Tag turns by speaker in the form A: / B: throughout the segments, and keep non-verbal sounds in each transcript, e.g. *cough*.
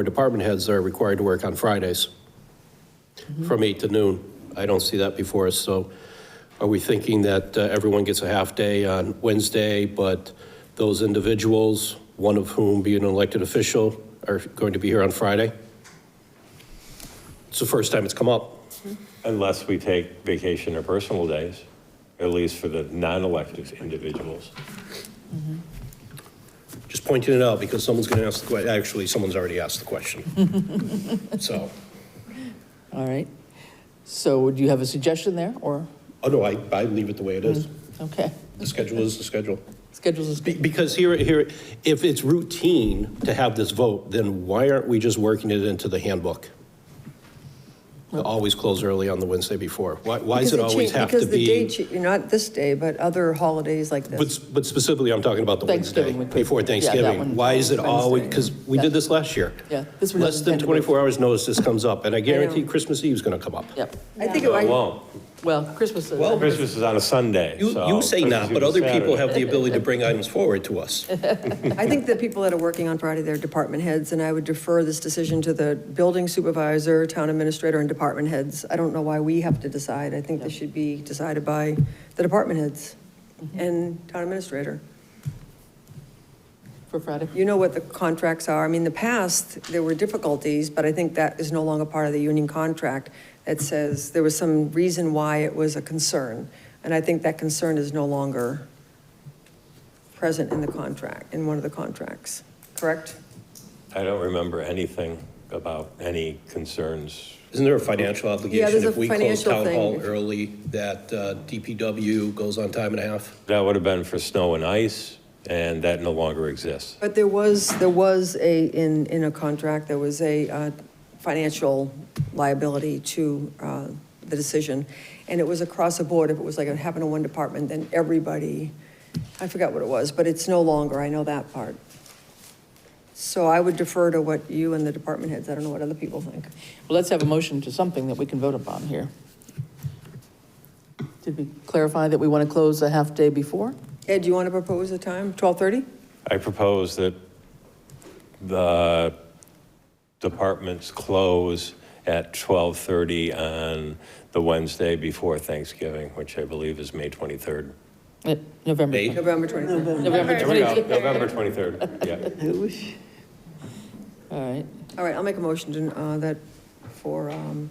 A: where department heads are required to work on Fridays from 8 to noon. I don't see that before us, so are we thinking that uh, everyone gets a half-day on Wednesday, but those individuals, one of whom being an elected official, are going to be here on Friday? It's the first time it's come up.
B: Unless we take vacation or personal days, at least for the non-elected individuals.
A: Just pointing it out because someone's going to ask the question, actually, someone's already asked the question. So,
C: All right. So do you have a suggestion there, or,
A: oh no, I, I leave it the way it is.
C: okay,
A: The schedule is the schedule.
C: schedules is,
A: Be- Because here, here, if it's routine to have this vote, then why aren't we just working it into the handbook? To Always close early on the Wednesday before. Why, why does it
D: Because
A: always
D: cha-
A: have to
D: Because the day,
A: be?
D: cha- not this day, but other holidays like
A: But,
D: this.
A: s- but specifically, I'm talking about the Wednesday,
C: Thanksgiving would be-
A: before
C: yeah, that
A: Thanksgiving.
C: one.
A: Why is it always,
D: Wednesday.
A: because we did this last year.
C: Yeah, this one
A: Less
C: doesn't
A: than
C: tend to be-
A: 24 hours notice this comes up, and I guarantee
D: know.
A: Christmas Eve's going to come up.
C: yep.
D: I think,
A: oh,
B: No, it
D: it might-
B: won't.
C: Well, Christmas uh, is.
A: Well,
B: Christmas is on a Sunday,
A: You,
B: so
A: you say
B: Christmas
A: not,
B: Eve
A: but
B: is
A: other people
B: Saturday.
A: have the ability to bring items forward to us.
D: I think the people that are working on Friday, they're department heads, and I would defer this decision to the building supervisor, town administrator, and department heads. I don't know why we have to decide. I think this should be decided by the department heads and town administrator.
C: For Friday.
D: You know what the contracts are. I mean, in the past, there were difficulties, but I think that is no longer part of the union contract that says there was some reason why it was a concern. And I think that concern is no longer present in the contract, in one of the contracts, correct?
B: I don't remember anything about any concerns.
A: Isn't there a financial obligation
D: there's
A: if
D: a
A: we close
D: financial
A: town hall
D: thing.
A: early, that uh, DPW goes on time and a half?
B: That would have been for snow and ice, and that no longer exists.
D: But there was, there was a, in, in a contract, there was a uh, financial liability to uh, the decision. And it was across the board. If it was like it happened to one department, then everybody, I forgot what it was, but it's no longer, I know that part. So I would defer to what you and the department heads, I don't know what other people think.
C: Well, let's have a motion to something that we can vote upon here. Did we clarify that we want to close a half day before?
D: Ed, do you want to propose a time, 12:30?
B: I propose that the departments close at 12:30 on the Wednesday before Thanksgiving, which I believe is May 23rd.
C: Eh, November.
A: Eight.
D: November 23rd.
C: November
B: There we go,
C: 23rd.
B: November *laughs* 23rd, yeah.
C: All right.
D: All right, I'll make a motion to, uh, that for, um,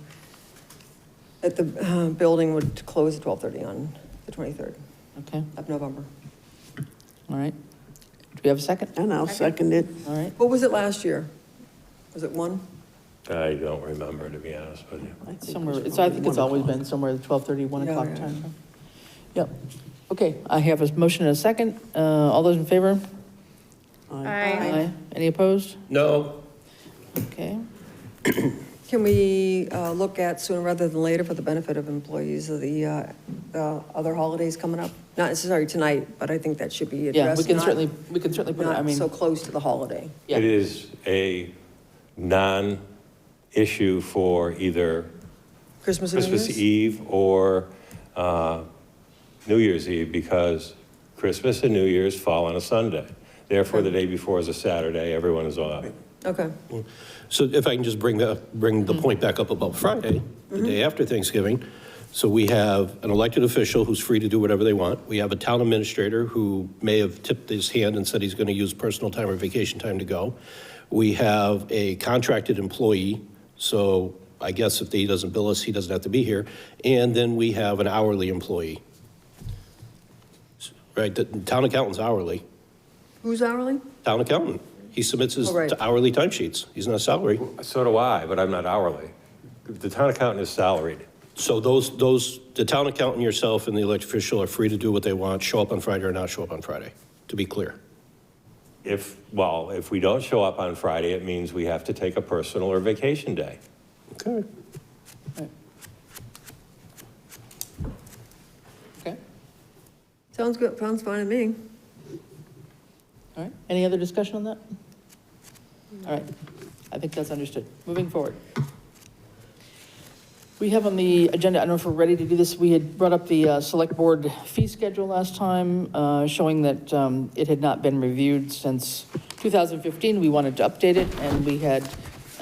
D: that the uh, building would close at 12:30 on the 23rd
C: Okay,
D: of November.
C: all right. Do we have a second?
E: And I'll second it.
C: All right,
D: What was it last year? Was it one?
B: I don't remember, to be honest with you.
E: I think
C: somewhere,
E: it's
C: it's, I think it's
E: one
C: always
E: o'clock.
C: been somewhere the 12:30, 1
D: Yeah,
C: o'clock
D: yeah,
C: time. frame. Yep, okay, I have a motion and a second. Uh, All those in favor? Aye. Any opposed?
A: No,
C: Okay,
D: Can we uh, look at sooner rather than later for the benefit of employees of the uh, uh, other holidays coming up? Not necessarily tonight, but I think that should be
C: yeah,
D: addressed.
C: we can
D: not-
C: certainly, we can certainly put it, I
D: Not
C: mean,
D: so close to the holiday.
C: yeah.
B: It is a non-issue for either
D: Christmas and New
B: Christmas
D: Year's?
B: Eve or uh, New Year's Eve because Christmas and New Year's fall on a Sunday. Therefore, the day before is a Saturday, everyone is off.
D: Okay,
A: so if I can just bring the, bring
D: Mm-hmm.
A: the point back up about Friday, the day after Thanksgiving. So we have an elected official who's free to do whatever they want. We have a town administrator who may have tipped his hand and said he's going to use personal time or vacation time to go. We have a contracted employee, so I guess if he doesn't bill us, he doesn't have to be here. And then we have an hourly employee. Right, the town accountant's hourly.
D: who's hourly?
A: town accountant. He submits his
D: Oh, right.
A: hourly timesheets. He's not salary.
B: So do I, but I'm not hourly. The town accountant is salaried.
A: So those, those, the town accountant, yourself, and the elected official are free to do what they want, show up on Friday or not show up on Friday, to be clear.
B: If, well, if we don't show up on Friday, it means we have to take a personal or vacation day.
A: Okay.
C: Okay,
D: Sounds good, sounds fine to me.
C: all right. Any other discussion on that? All right, I think that's understood. Moving forward. We have on the agenda, I don't know if we're ready to do this, we had brought up the uh, Select Board fee schedule last time, uh, showing that um, it had not been reviewed since 2015. We wanted to update it, and we had